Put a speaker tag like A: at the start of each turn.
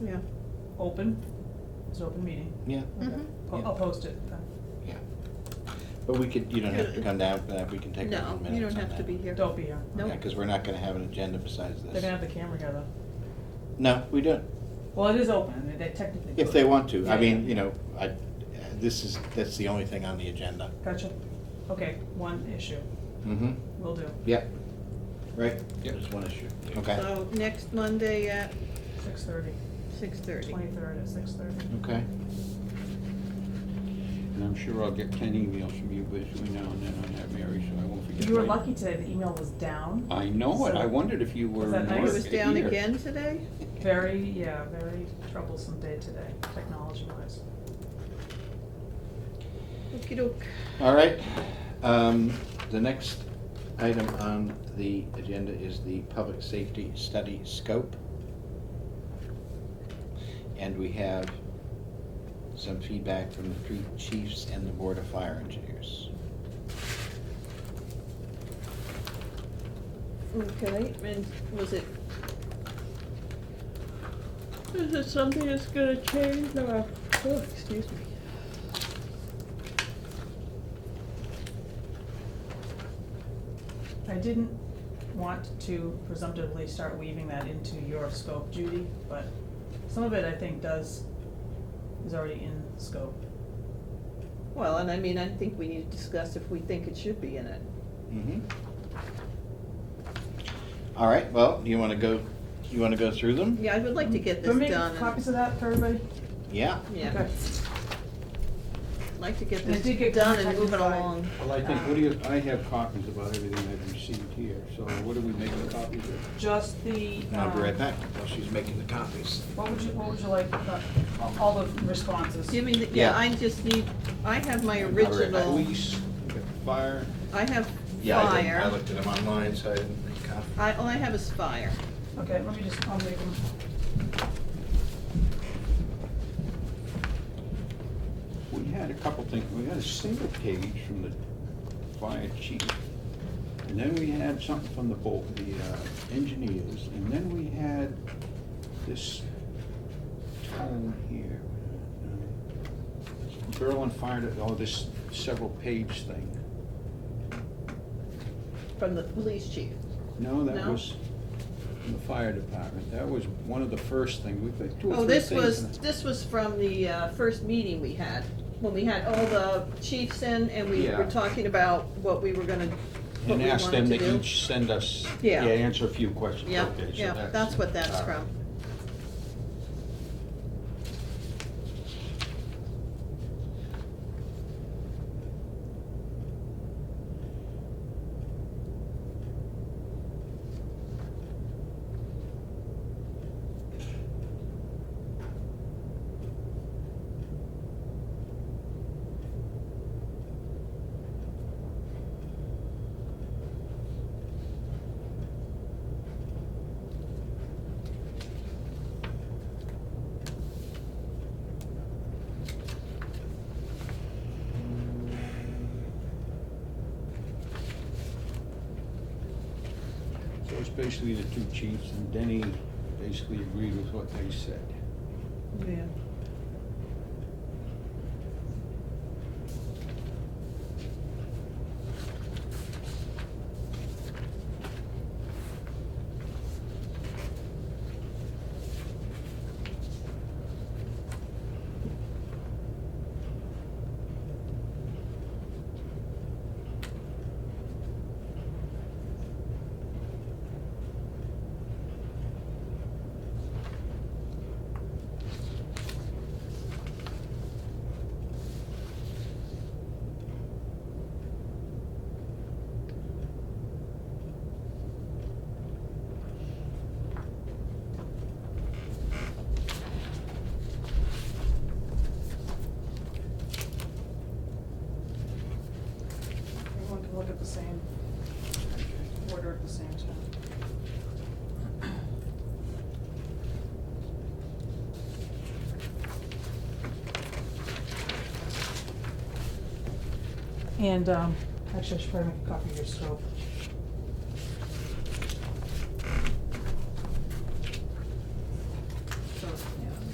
A: Yeah.
B: open, it's an open meeting,
C: Yeah,
A: Mhm.
B: Po-
C: Yeah.
B: I'll post it.
C: yeah. But we could, you don't have to come down for that, we can take a few minutes
A: No,
C: on that.
A: you don't have to be here.
B: Don't be here.
A: Nope.
C: Yeah, because we're not gonna have an agenda besides
B: They're gonna
C: this.
B: have the camera here though.
C: No, we don't,
B: Well, it is open, I mean, they technically.
C: if they want to.
B: Yeah,
C: I mean,
B: yeah.
C: you know, I, this is, that's the only thing on the agenda.
B: Gotcha. Okay, one issue,
C: Mm-hmm,
B: will do,
C: yep. Right?
D: Yep.
C: There's one issue. Okay,
A: So next Monday at
B: six thirty,
A: six thirty.
B: twenty-third at six thirty.
C: okay.
D: And I'm sure I'll get ten emails from you between now and then on that, Mary, so I won't forget.
B: You were
D: my-
B: lucky today, the email was down,
D: I know it, I
B: So-
D: wondered if you were.
B: Was that
D: in
B: nice?
A: It
D: work
A: was down
D: here.
A: again today?
B: very, yeah, very troublesome day today, technology wise.
A: Okey doke.
C: All right, um, the next item on the agenda is the public safety study scope. And we have some feedback from the three chiefs and the board of fire engineers.
A: Okay, and was it? Is it something that's gonna change or, oh, excuse me.
B: I didn't want to presumptively start weaving that into your scope, Judy, but some of it I think does, is already in scope.
A: Well, and I mean, I think we need to discuss if we think it should be in it.
C: Mhm. All right, well, do you wanna go, you wanna go through them?
A: Yeah, I would like to get this
B: Let me make
A: done. and-
B: Copies of that for everybody?
C: Yeah,
A: Yeah,
B: Okay.
A: I'd like to get
B: And I did
A: this
B: get
A: done and
B: contacted
A: move it
B: by-
A: along.
D: Well, I
B: Uh,
D: think, what do you, I have copies about everything I've received here, so what do we make of copies of?
B: Just the.
C: and I'll be
B: um,
C: right back while she's making the copies.
B: What would you, what would you like, the- all- all the responses?
A: Give me, the-
C: Yeah.
A: yeah, I just need, I have my original,
C: Police, we got fire.
A: I have
C: Yeah, I didn't- I
A: fire.
C: looked at them online, so I didn't make copies.
A: I, all I have is fire.
B: Okay, let me just, I'll make them.
D: We had a couple things, we had a single page from the fire chief, and then we had something from the bolt, the uh, engineers, and then we had this tone here. uh, Berlin Fire, oh, this several page thing.
A: From the police chief.
D: No, that
A: No?
D: was from the fire department, that was one of the first things, we put two
A: Oh,
D: or three
A: this
D: things.
A: was,
D: in it.
A: this was from the uh, first meeting we had, when we had all the chiefs in and we were
D: Yeah.
A: talking about what we were gonna, what
D: And
A: we
D: asked
A: wanted
D: them
A: to
D: to
A: do.
D: each send us, yeah,
A: Yeah.
D: answer a few questions.
A: Yeah,
D: Okay, so
A: yeah, that's what that's
D: all right.
A: from.
D: So it's basically the two chiefs, and Denny basically agreed with what they said.
A: Yeah.
B: Everyone can look at the same, order at the same time. And, um, actually, I should probably make a copy of your scope.